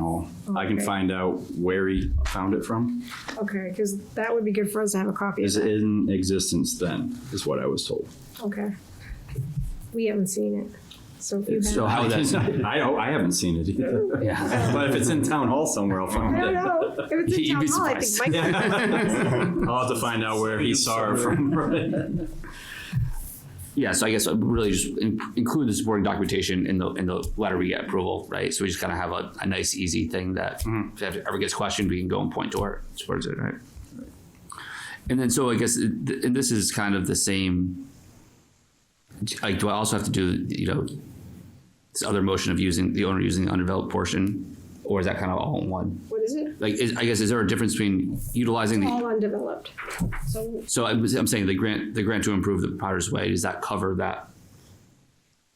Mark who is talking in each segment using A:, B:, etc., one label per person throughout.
A: know. I can
B: Okay.
A: find out where he found it from.
B: Okay, because that would be good for us to have a copy.
A: Is in existence then, is what I was told.
B: Okay. We haven't seen it. So if you
A: So
B: have.
A: how that's, I, don't- I haven't seen it either.
C: Yeah.
A: But if it's in town hall somewhere, I'll
B: I
A: find
B: don't
A: it.
B: know. If it's in
C: You'd
B: town
C: be
B: hall, I think
C: surprised.
B: Mike,
A: I'll have to find out where he saw it from.
C: Yeah, so I guess uh, really just in- include the supporting documentation in the, in the letter we get approval, right? So we just kind of have a, a nice, easy thing that if it ever gets questioned, we can go and point to where it supports it, right? And then, so I guess, uh, th- and this is kind of the same, like, do I also have to do, you know, this other motion of using, the owner using the undeveloped portion? Or is that kind of all in one?
B: what is it?
C: Like, is, I guess, is there a difference between utilizing the?
B: All undeveloped. So
C: So I'm, I'm saying the grant, the grant to improve the Potter's Way, does that cover that?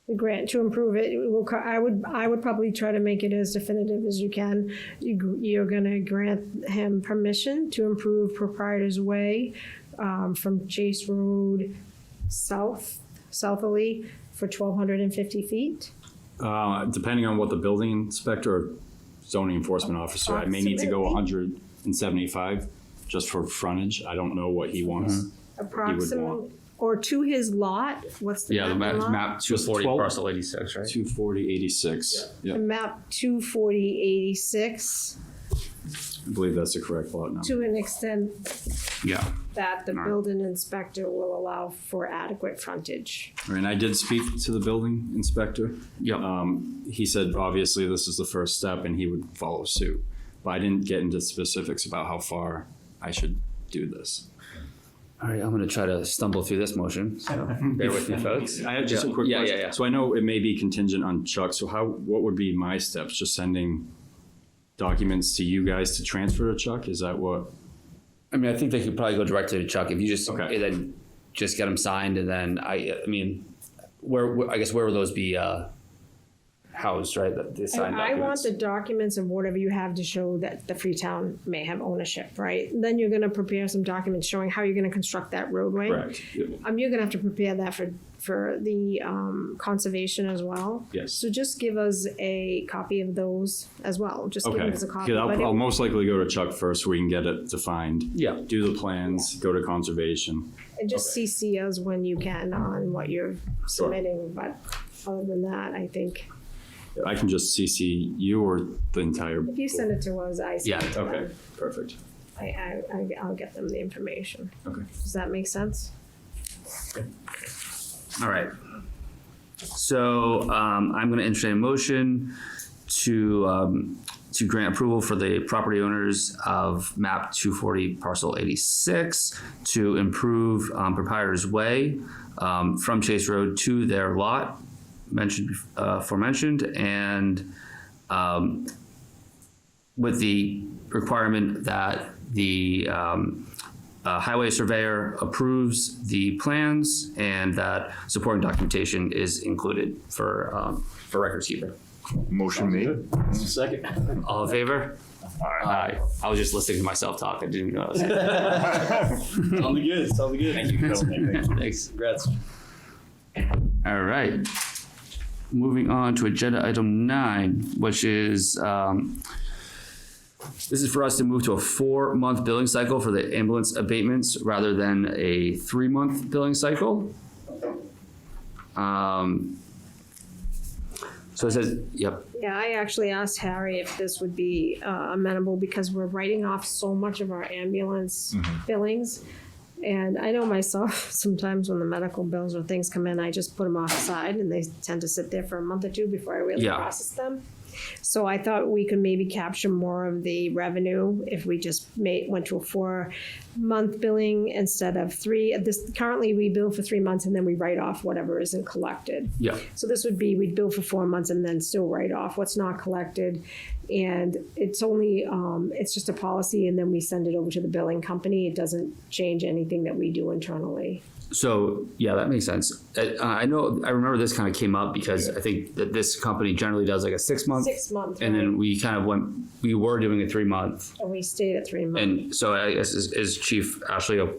B: the grant to improve it, it will, co- I would, I would probably try to make it as definitive as you can. You, gr- you're gonna grant him permission to improve Proprietor's Way, um, from Chase Road south, southerly for twelve hundred and fifty feet.
A: Uh, depending on what the building inspector or zoning enforcement officer, I may need to go hundred and seventy-five just for frontage. I don't know what he wants.
B: Approximate,
A: want.
B: or to his lot, what's the
C: Yeah, the
B: map
C: map,
B: lot?
C: map two forty
A: 12?
C: parcel eighty-six, right?
A: Two forty eighty-six. Yeah,
B: The map two forty eighty-six,
A: I believe that's the correct lot number.
B: to an extent
C: Yeah.
B: that the building inspector will allow for adequate frontage.
A: And I did speak to the building inspector.
C: Yep.
A: Um, he said, obviously, this is the first step and he would follow suit. But I didn't get into specifics about how far I should do this.
C: All right, I'm gonna try to stumble through this motion, so bear with me, folks.
A: I have just a
C: Yeah.
A: quick
C: Yeah,
A: question.
C: yeah, yeah.
A: So I know it may be contingent on Chuck, so how, what would be my steps? Just sending documents to you guys to transfer to Chuck? Is that what?
C: I mean, I think they could probably go directly to Chuck if you just,
A: Okay.
C: and then just get them signed and then I, I mean, where, where- I guess where would those be, uh, housed, right? The- The signed
B: I want
C: documents?
B: the documents of whatever you have to show that the Freetown may have ownership, right? Then you're gonna prepare some documents showing how you're gonna construct that roadway. Um, you're gonna have to prepare that for, for the, um, conservation as well.
A: Yes.
B: So just give us a copy of those as well, just give
A: Okay,
B: us a copy.
A: because
B: but it-
A: I'll, I'll most likely go to Chuck first so we can get it defined.
C: Yeah.
A: Do the plans, go to conservation.
B: And just CC us when you can on what you're submitting, but other than that, I think,
A: I can just CC you or the entire.
B: if you send it to us, I. send
C: Yeah,
B: it to
A: Okay,
B: them.
A: perfect.
B: I, I, I- I'll get them the information.
A: Okay.
B: Does that make sense?
C: All right. So, um, I'm gonna entertain a motion to, um, to grant approval for the property owners of map two forty parcel eighty-six to improve, um, proprietor's way, um, from Chase Road to their lot mentioned, uh, aforementioned and, um, with the requirement that the, um, uh, highway surveyor approves the plans and that supporting documentation is included for, um, for records keeper.
D: Motion made.
C: All in favor? Aye. I was just listening to myself talk. I didn't even know. I
E: Sounds good. Sounds good. Thank
C: was- Thanks.
E: Congrats.
C: All right. Moving on to agenda item nine, which is, um, this is for us to move to a four-month billing cycle for the ambulance abatements rather than a three-month billing cycle. Um, so it says, yep,
B: Yeah, I actually asked Harry if this would be uh, amenable because we're writing off so much of our ambulance billings. And I know myself, sometimes when the medical bills or things come in, I just put them off the side and they tend to sit there for a month or two before I really
C: Yeah.
B: process them. So I thought we could maybe capture more of the revenue if we just made, went to a four-month billing instead of three. This, currently, we bill for three months and then we write off whatever isn't collected.
C: yeah,
B: So this would be, we'd bill for four months and then still write off what's not collected. And it's only, um, it's just a policy and then we send it over to the billing company. It doesn't change anything that we do internally.
C: So, yeah, that makes sense. I, uh, I know, I remember this kind of came up because I think that this company generally does like a six-month.
B: Six months,
C: And
B: right?
C: then we kind of went, we were doing a three-month.
B: And we stayed at three months.
C: And so I guess is, is Chief Ashley, o-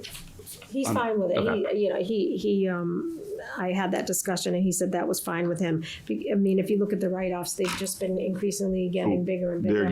B: He's fine with it. He, you know, he, he, um, I had that discussion and he said
C: Oh,
B: that was fine with him. Be- I mean, if you look at the write-offs, they've just been increasingly getting bigger and bigger.
D: They're